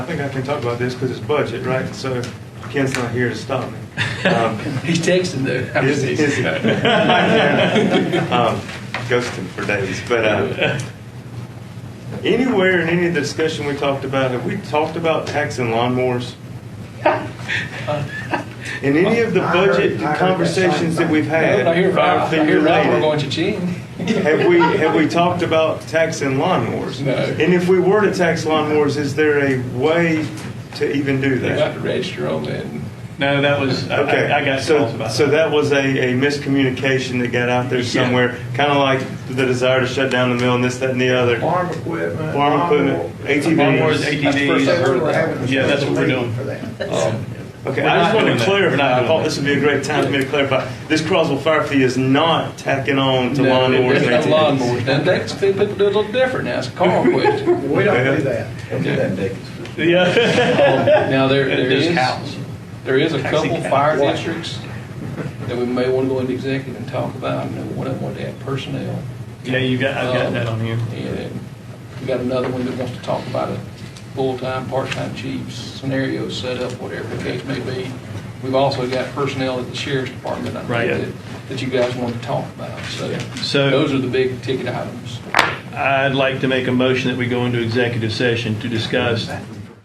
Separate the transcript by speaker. Speaker 1: I think I can talk about this because it's budget, right? So Ken's not here to stop me. Um,
Speaker 2: He's texting though. I'm
Speaker 1: Is, is he? Um, Ghosting for days, but uh, anywhere in any of the discussion we talked about, have we talked about taxing lawnmowers? In any of the
Speaker 3: I heard-
Speaker 1: budget
Speaker 3: I heard that
Speaker 1: conversations
Speaker 3: same
Speaker 1: that we've had,
Speaker 2: I hear Rob,
Speaker 1: have
Speaker 2: I
Speaker 1: been
Speaker 2: hear Rob, we're going
Speaker 1: related.
Speaker 2: to chin.
Speaker 1: Have we have we talked about taxing lawnmowers?
Speaker 2: No.
Speaker 1: And if we were to tax lawnmowers, is there a way to even do
Speaker 2: You have
Speaker 1: that?
Speaker 2: to register on that.
Speaker 4: No, that was, I-
Speaker 1: Okay,
Speaker 4: I, I got calls
Speaker 1: so,
Speaker 4: about
Speaker 1: so
Speaker 4: that.
Speaker 1: that was a, a miscommunication that got out there
Speaker 4: Yeah.
Speaker 1: somewhere, kind of like the desire to shut down the mill and this, that, and the other.
Speaker 3: Farm equipment.
Speaker 1: Farm equipment,
Speaker 4: Lawnmowers,
Speaker 1: ATVs.
Speaker 3: That's the first I heard of that.
Speaker 4: ATVs. Yeah, that's what we're doing.
Speaker 3: For that.
Speaker 2: Um,
Speaker 1: Okay,
Speaker 4: We're
Speaker 1: I just
Speaker 4: not
Speaker 1: wanted
Speaker 4: doing
Speaker 1: to
Speaker 4: that. We're not
Speaker 1: clarify, I
Speaker 4: doing
Speaker 1: thought
Speaker 4: that.
Speaker 1: this would be a great time for me to clarify. This Croswell Fire Fee is not tacking on to
Speaker 2: no,
Speaker 1: lawnmowers
Speaker 2: it's
Speaker 1: and
Speaker 2: not
Speaker 1: ATVs.
Speaker 2: Lawnmowers. Now, that's, people do a little different now. It's a car Um, question.
Speaker 3: We don't do that. Don't do that, Dick.
Speaker 4: Yeah.
Speaker 2: Now, there, there
Speaker 4: This
Speaker 2: is,
Speaker 4: house.
Speaker 2: there is a
Speaker 4: Taxi
Speaker 2: couple
Speaker 4: cab.
Speaker 2: fire
Speaker 4: What?
Speaker 2: districts that we may want to go into executive and talk about. I know one of them wanted to add personnel.
Speaker 4: Yeah, you got, I've got that on here.
Speaker 2: And we got another one that wants to talk about a full-time, part-time chief scenario setup, whatever the case may be. We've also got personnel at the sheriff's department, I
Speaker 4: Right.
Speaker 2: think, that, that you guys want to talk about. So,
Speaker 4: So-
Speaker 2: those are the big ticket items.
Speaker 4: I'd like to make a motion that we go into executive session to discuss